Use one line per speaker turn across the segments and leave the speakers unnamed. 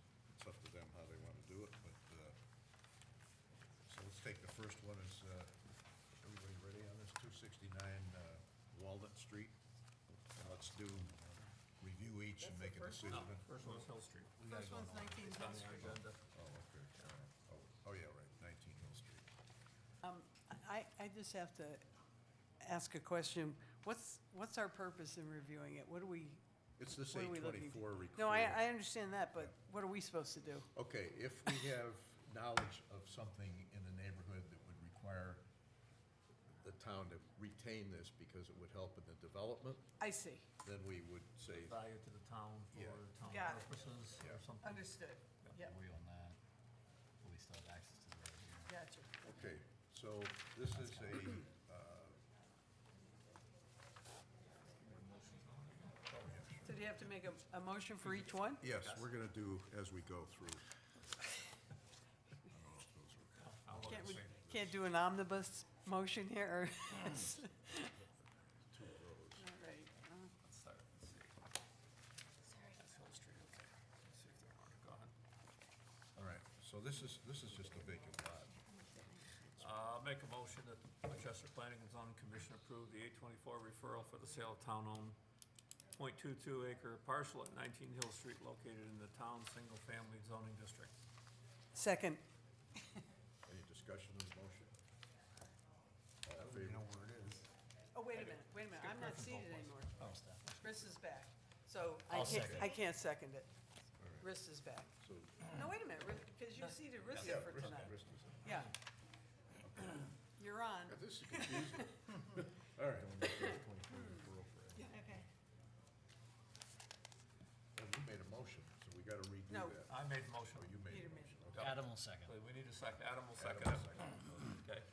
uh, is, uh, everybody ready on this, 269 uh, Walnut Street? And Let's do, review each and make a decision. Oh,
First one's Hill Street.
First one's 19 Hill Street.
okay, all right. Oh, oh, yeah, right, 19 Hill Street.
I, I just have to ask a question. What's, what's our purpose in reviewing it? What are we,
It's this
what are we looking?
824 request.
No, I, I understand that, but what are we supposed to do?
Okay, if we have knowledge of something in the neighborhood that would require the town to retain this because it would help in the development,
I see,
then we would say,
Value to the town
Yeah.
for town
Got it.
purposes
Yeah.
or something.
understood. Yep,
We own that, but we still have access to the road here.
gotcha.
okay, so this is a, uh,
So do you have to make a, a motion for each one?
yes, we're gonna do as we go through. I don't know if those are-
Can't, we, can't do an omnibus motion here, or?
Two rows.
All right, uh,
Let's start, let's see. That's Hill Street, okay. Let's see if they're marked, go ahead.
All right, so this is, this is just a vacant lot.
Uh, I'll make a motion that the Winchester Planning and Zoning Commission approve the eight twenty-four referral for the sale of town-owned 0.22 acre parcel at nineteen Hill Street located in the town single-family zoning district.
Second,
Any discussion of the motion? All in
You
favor?
know where it is.
oh, wait a minute, wait a minute, I'm not seated anymore.
Oh, stuff.
Chris is back, so I
second.
can't, I can't second it. Chris is back.
So,
No, wait a minute, because you seated
yeah,
Rissa for
Rist-
tonight.
Rist is in.
Yeah. You're on.
Yeah, This is confusing. All right.
Yeah, Okay.
Well, you made a motion, so we gotta redo
No.
that.
I made the motion.
Oh, you made
Peter
a
made
motion.
Yeah.
Adam will second.
Wait, We need a second, Adam will
Adam
second
will
it.
second.
Okay.
All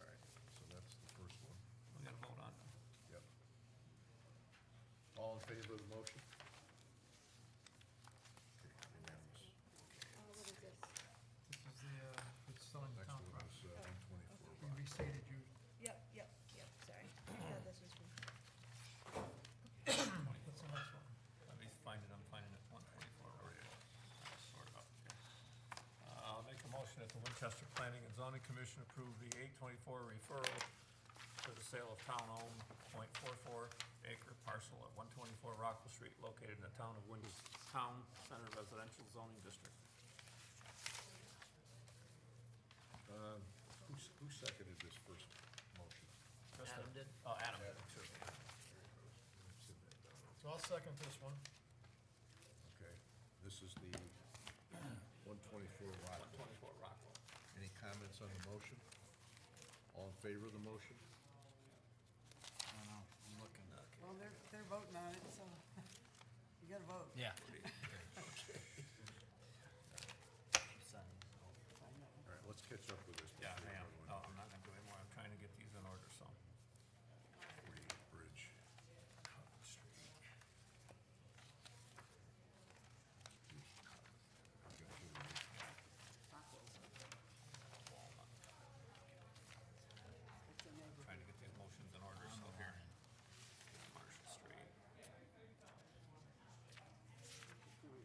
right, so that's the first one.
We gotta vote on it.
Yep. All in favor of the motion? Okay, unanimous.
Uh, What is this?
This is the, uh, it's still in the
Next
town
one
property.
is uh, one twenty-four
You
Rock.
restated you,
Yep, yep, yep, sorry. Yeah, this was me.
what's the next one?
Let me find it, I'm finding it, one twenty-four, already. Sort it out, okay. Uh, I'll make a motion that the Winchester Planning and Zoning Commission approve the eight twenty-four referral for the sale of town-owned 0.44 acre parcel at one twenty-four Rockville Street located in the town of Winchester, Town Center Residential Zoning District.
Who, s- who seconded this first motion?
Adam did? Oh, Adam,
Adam seconded it. There it goes. It's in there now.
So I'll second this one.
Okay, this is the one twenty-four Rock.
one twenty-four Rockville.
Any comments on the motion? All in favor of the motion?
I don't know, I'm looking.
Well, they're, they're voting on it, so you gotta vote.
Yeah.
All right, let's catch up with this.
Yeah,
before
I am,
everyone-
no, I'm not gonna do any more, I'm trying to get these in order, so.
Forty Bridge, Cotton Street. Okay, here
Trying to get these motions in order, so here. Marshall Street.
we go.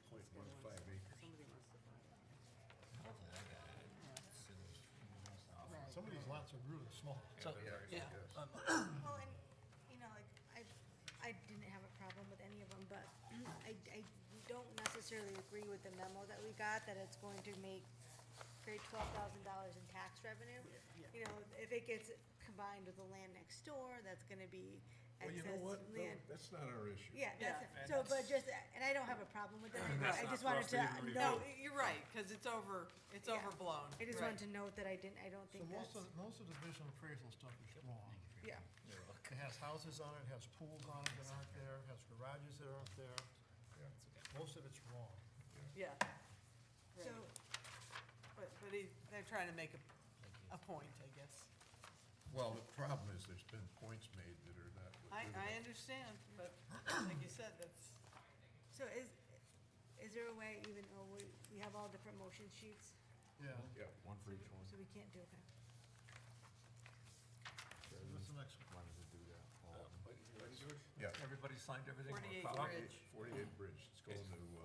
Point one five acres.
Somebody wants to vote.
Some of these lots are really small.
So, yeah,
yes.
um,
Well, and, you know, like, I, I didn't have a problem with any of them, but I, I don't necessarily agree with the memo that we got, that it's going to make create twelve thousand dollars in tax revenue. You know, if it gets combined with the land next door, that's gonna be
Well, you know
excess
what? No,
land.
That's not our issue.
Yeah,
Yeah.
that's, so, but just, and I don't have a problem with that,
And
but
that's
I
not
just
for
wanted
us to
to
even
note.
No, you're right, because it's over, it's
Yeah.
overblown.
I just
Right.
wanted to note that I didn't, I don't
So
think that's,
most of, most of the vision appraisal stuff is wrong.
yeah,
It has houses on it, has pools on it that aren't there, has garages that aren't there.
Yeah.
Most of it's wrong.
Yeah,
so,
but, but he, they're trying to make a, a point, I guess.
Well, the problem is there's been points made that are not.
I, I
legitimate.
understand, but like you said, that's,
so is, is there a way, even though we, we have all different motion sheets,
Yeah.
Yeah,
One for each one.
so we can't do, okay?
What's the next one?
Why does it do that? All of them?
yeah.
Everybody signed everything? We're
48
proud.
Bridge.
Forty-eight Bridge, it's going to, uh,